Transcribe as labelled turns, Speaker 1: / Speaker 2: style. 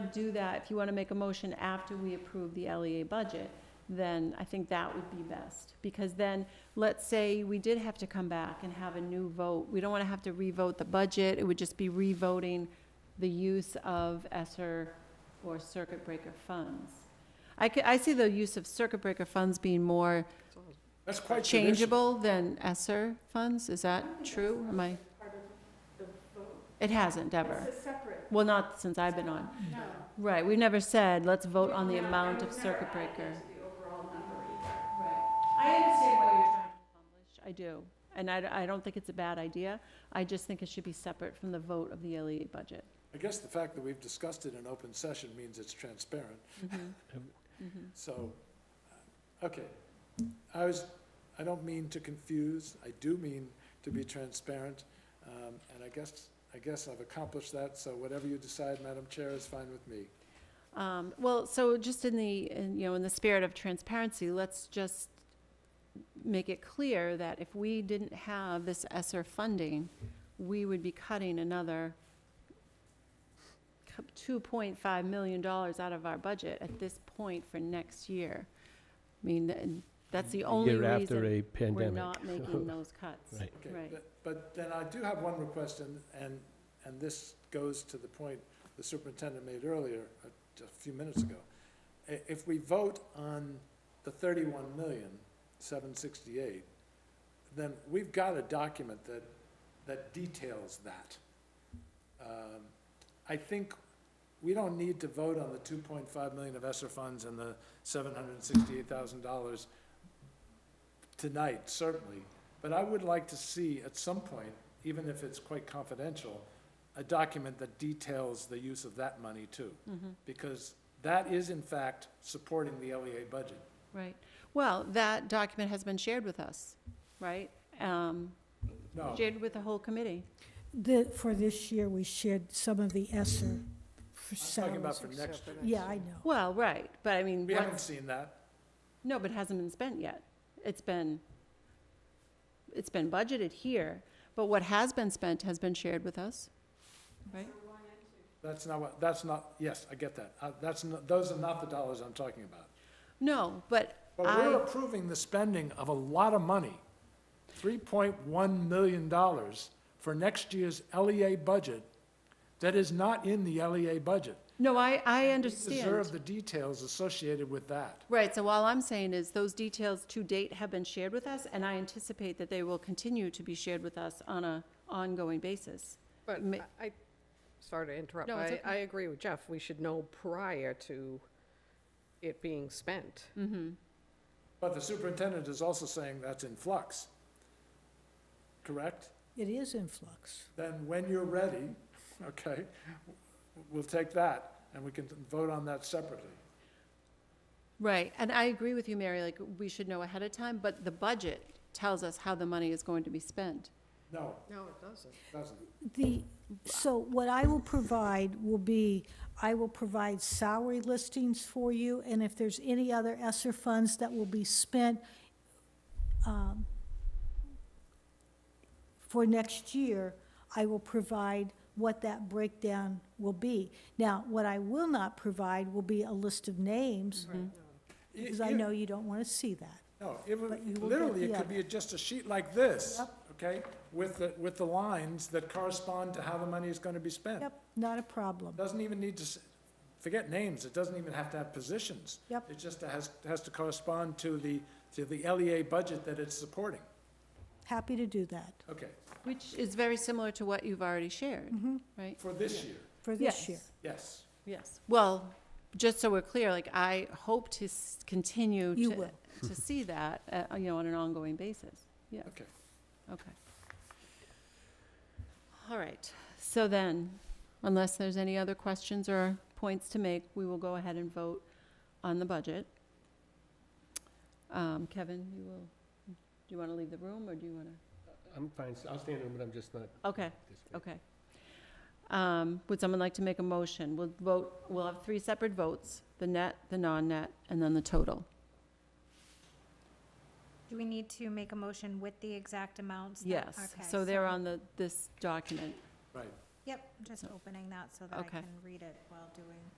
Speaker 1: to do that, if you want to make a motion after we approve the LEA budget, then I think that would be best. Because then, let's say we did have to come back and have a new vote. We don't want to have to revote the budget. It would just be revoting the use of ESER or circuit breaker funds. I could, I see the use of circuit breaker funds being more
Speaker 2: That's quite traditional.
Speaker 1: changeable than ESER funds. Is that true? Am I? It hasn't ever.
Speaker 3: It's a separate,
Speaker 1: Well, not since I've been on.
Speaker 3: no.
Speaker 1: Right, we've never said, let's vote on the
Speaker 3: We've never-
Speaker 1: amount of
Speaker 3: we've never
Speaker 1: circuit
Speaker 3: added
Speaker 1: breaker.
Speaker 3: to the overall number either.
Speaker 1: I understand what you're trying to accomplish. I do, and I, d- I don't think it's a bad idea. I just think it should be separate from the vote of the LEA budget.
Speaker 2: I guess the fact that we've discussed it in open session means it's transparent,
Speaker 3: Mm-hmm.
Speaker 1: Mhm.
Speaker 4: Um,
Speaker 1: Mhm.
Speaker 2: so, uh, okay. I was, I don't mean to confuse, I do mean to be transparent, um, and I guess, I guess I've accomplished that, so whatever you decide, Madam Chair, is fine with me.
Speaker 1: Um, well, so just in the, in, you know, in the spirit of transparency, let's just make it clear that if we didn't have this ESSER funding, we would be cutting another cu- $2.5 million out of our budget at this point for next year. I mean, th- and that's the only
Speaker 4: Year after
Speaker 1: reason
Speaker 4: a
Speaker 1: we're
Speaker 4: pandemic.
Speaker 1: not making those cuts.
Speaker 4: Right.
Speaker 2: Okay,
Speaker 1: Right.
Speaker 2: but- But then I do have one request, and, and, and this goes to the point the superintendent made earlier, uh, just a few minutes ago. I- If we vote on the thirty-one million, seven sixty-eight, then we've got a document that, that details that. Um, I think we don't need to vote on the two point five million of ESSER funds and the seven hundred and sixty-eight thousand dollars tonight, certainly. But I would like to see at some point, even if it's quite confidential, a document that details the use of that money too.
Speaker 1: Mhm.
Speaker 2: Because that is in fact supporting the LEA budget.
Speaker 1: Right. Well, that document has been shared with us, right? Um,
Speaker 2: No,
Speaker 1: Shared with the whole committee.
Speaker 5: The, for this year, we shared some of the ESSER for
Speaker 2: I'm talking
Speaker 5: salaries.
Speaker 2: about for next year.
Speaker 5: Yeah, I know.
Speaker 1: Well, right, but I mean,
Speaker 2: We haven't
Speaker 1: what's
Speaker 2: seen that.
Speaker 1: No, but it hasn't been spent yet. It's been, it's been budgeted here, but what has been spent has been shared with us, right?
Speaker 2: That's not what, that's not, yes, I get that. Uh, That's, not- those are not the dollars I'm talking about.
Speaker 1: No, but
Speaker 2: But
Speaker 1: I-
Speaker 2: we're approving the spending of a lot of money, $3.1 million for next year's LEA budget that is not in the LEA budget.
Speaker 1: No, I, I
Speaker 2: We deserve
Speaker 1: understand.
Speaker 2: the details associated with that.
Speaker 1: Right, so all I'm saying is those details to date have been shared with us, and I anticipate that they will continue to be shared with us on a ongoing basis.
Speaker 6: But
Speaker 1: Ma-
Speaker 6: I, I- sorry to interrupt,
Speaker 1: No,
Speaker 6: but
Speaker 1: it's
Speaker 6: I,
Speaker 1: okay.
Speaker 6: I agree with Jeff, we should know prior to it being spent.
Speaker 2: But the superintendent is also saying that's in flux, correct?
Speaker 5: It is in flux.
Speaker 2: Then when you're ready, okay, we'll take that, and we can vote on that separately.
Speaker 1: Right, and I agree with you, Mary, like, we should know ahead of time, but the budget tells us how the money is going to be spent.
Speaker 2: No,
Speaker 6: No, it doesn't.
Speaker 2: it doesn't.
Speaker 5: The, so what I will provide will be, I will provide salary listings for you, and if there's any other ESSER funds that will be spent um, for next year, I will provide what that breakdown will be. Now, what I will not provide will be a list of names, because I
Speaker 2: You-
Speaker 5: know you don't want to see that.
Speaker 2: No, it
Speaker 5: But you will
Speaker 2: would,
Speaker 5: get
Speaker 2: literally, it
Speaker 5: the
Speaker 2: could be just a sheet like this,
Speaker 5: Yep.
Speaker 2: okay? With the, with the lines that correspond to how the money is gonna be spent.
Speaker 5: Yep, not a problem.
Speaker 2: Doesn't even need to, s- forget names, it doesn't even have to have positions.
Speaker 5: Yep.
Speaker 2: It just has, has to correspond to the, to the LEA budget that it's supporting.
Speaker 5: Happy to do that
Speaker 2: Okay,
Speaker 1: Which is very similar to what you've already shared, right?
Speaker 2: for this year,
Speaker 5: Mm-hmm. for this year.
Speaker 2: yes.
Speaker 1: Yes. Well, just so we're clear, like, I hope to s- continue
Speaker 5: You
Speaker 1: to,
Speaker 5: will.
Speaker 1: to see that, uh, you know, on an ongoing basis. Yeah.
Speaker 2: Okay.
Speaker 1: Okay. All right. So then, unless there's any other questions or points to make, we will go ahead and vote on the budget. Um, Kevin, you will, do you want to leave the room, or do you want to?
Speaker 4: I'm fine, s- I'll stand in, but I'm just not
Speaker 1: Okay,
Speaker 4: this way.
Speaker 1: okay. Um, Would someone like to make a motion? We'll vote, we'll have three separate votes, the net, the non-net, and then the total.
Speaker 7: Do we need to make a motion with the exact amounts? that-
Speaker 1: Yes,
Speaker 7: okay,
Speaker 1: so they're on the, this document.
Speaker 2: Right.
Speaker 7: Yep, just opening that so that I
Speaker 1: Okay.
Speaker 7: can read it while doing.